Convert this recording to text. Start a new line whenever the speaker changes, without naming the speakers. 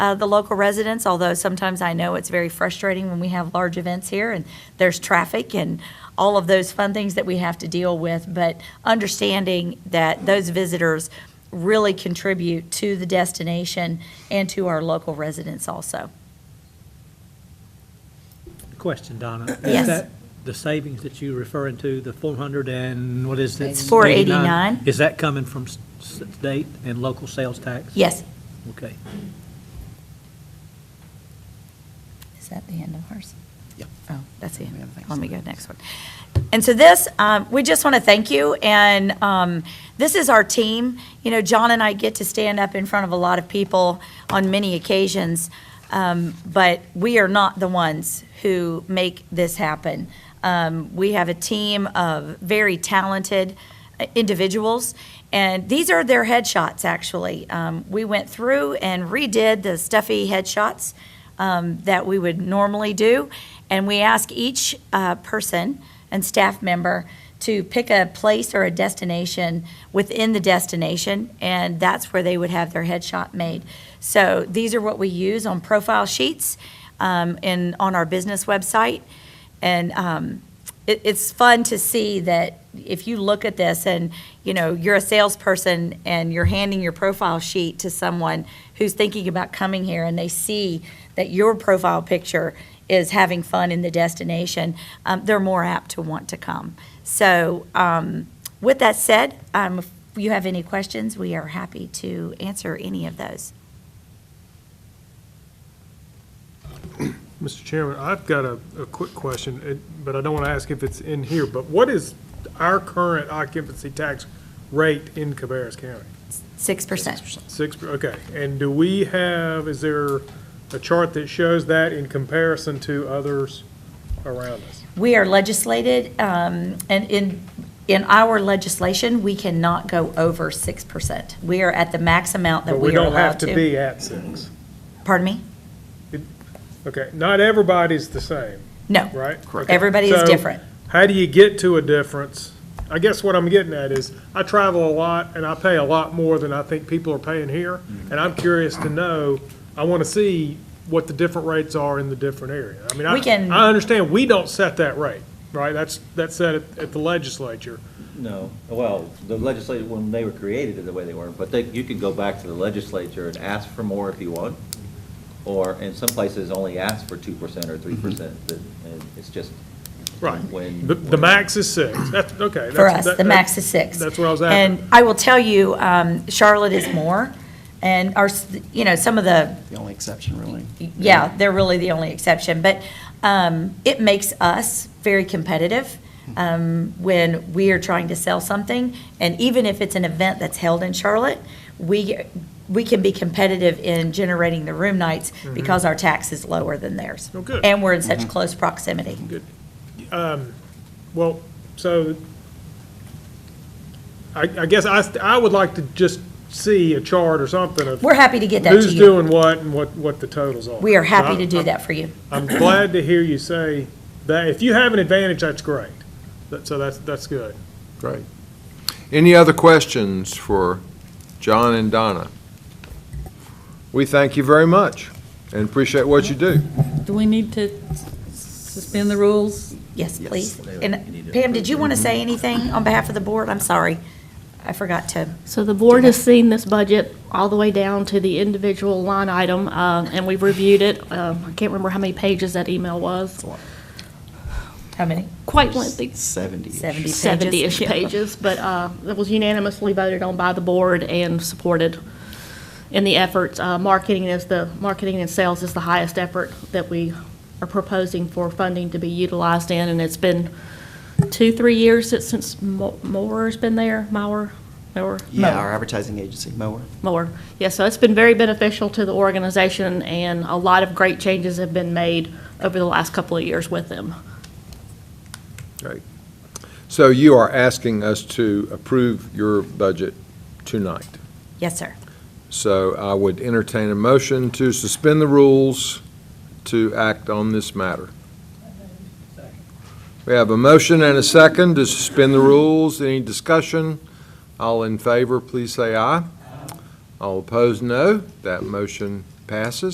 uh, the local residents, although sometimes I know it's very frustrating when we have large events here and there's traffic and all of those fun things that we have to deal with. But understanding that those visitors really contribute to the destination and to our local residents also.
Question, Donna. Is
Yes.
that The savings that you're referring to, the 400 and what is it?
It's 489.
Is that coming from s- s- state and local sales tax?
Yes.
Okay.
Is that the end of ours?
Yep.
Oh, that's the end.
have the next
Let me go to the next one. And so this, um, we just want to thank you, and um, this is our team. You know, John and I get to stand up in front of a lot of people on many occasions, um, but we are not the ones who make this happen. Um, We have a team of very talented uh, individuals, and these are their headshots, actually. Um, We went through and redid the stuffy headshots um, that we would normally do. And we ask each uh, person and staff member to pick a place or a destination within the destination, and that's where they would have their headshot made. So these are what we use on profile sheets um, and on our business website. And um, it, it's fun to see that if you look at this and, you know, you're a salesperson and you're handing your profile sheet to someone who's thinking about coming here and they see that your profile picture is having fun in the destination, um, they're more apt to want to come. So, um, with that said, um, if you have any questions, we are happy to answer any of those.
Mr. Chairman, I've got a, a quick question, it- but I don't want to ask if it's in here, but what is our current occupancy tax rate in Cabarrus County?
Six percent.
Six, per- okay, and do we have, is there a chart that shows that in comparison to others around us?
We are legislated, um, and in, in our legislation, we cannot go over 6%. We are at the max amount that
But
we are
don't have
allowed
to
to.
be at six.
Pardon me?
Okay, not everybody's the same,
No,
right? Okay.
everybody is
So,
different.
How do you get to a difference? I guess what I'm getting at is, I travel a lot and I pay a lot more than I think people are paying here. And I'm curious to know, I want to see what the different rates are in the different area. I mean, I,
We can-
I understand, we don't set that rate, right? That's, that's set at, at the legislature.
No, well, the legislature, when they were created, the way they were, but they, you can go back to the legislature and ask for more if you want, or in some places only ask for two percent or three percent, but and it's just. When.
Mm-hmm. The, the max is six, that's, okay.
For
that's-
us,
that-
the max
that-
is six.
That's what I was after.
And I will tell you, um, Charlotte is more, and our, s- you know, some of the
The only exception, really.
yeah, they're really the only exception. But um, it makes us very competitive um, when we are trying to sell something. And even if it's an event that's held in Charlotte, we, we can be competitive in generating the room nights
Mm-hmm.
because our tax is lower than theirs.
Oh, good.
And we're in such close proximity.
Mm-hmm. Well, so, I, I guess I, st- I would like to just see a chart or something of
We're happy to get that to
who's
you.
doing Uh, what and what, what the totals are.
We are happy
So
to do
I'm-
that for you.
I'm glad to hear you say that. If you have an advantage, that's great. That- So that's, that's good.
Great. Any other questions for John and Donna? We thank you very much and appreciate what you do.
Do we need to suspend the rules?
Yes,
Yes.
please.
You need
And
to
Pam, did you
approve.
want to say anything on behalf of the board? I'm sorry. I forgot to.
So the board has seen this budget all the way down to the individual line item, uh, and we've reviewed it. Um, I can't remember how many pages that email was.
How many?
Quite lengthy,
Seventy.
70 pages?
70-ish
Yeah.
pages, but uh, it was unanimously voted on by the board and supported in the efforts. Uh, Marketing is the, marketing and sales is the highest effort that we are proposing for funding to be utilized in, and it's been two, three years since- since Mo- Mower's been there, Mauer, Mower?
Yeah, our advertising agency, Mower.
more. Yeah, so it's been very beneficial to the organization, and a lot of great changes have been made over the last couple of years with them.
Great. So you are asking us to approve your budget tonight.
Yes, sir.
So I would entertain a motion to suspend the rules to act on this matter. We have a motion and a second to suspend the rules. Any discussion? All in favor, please say aye. All opposed, no. That motion passes.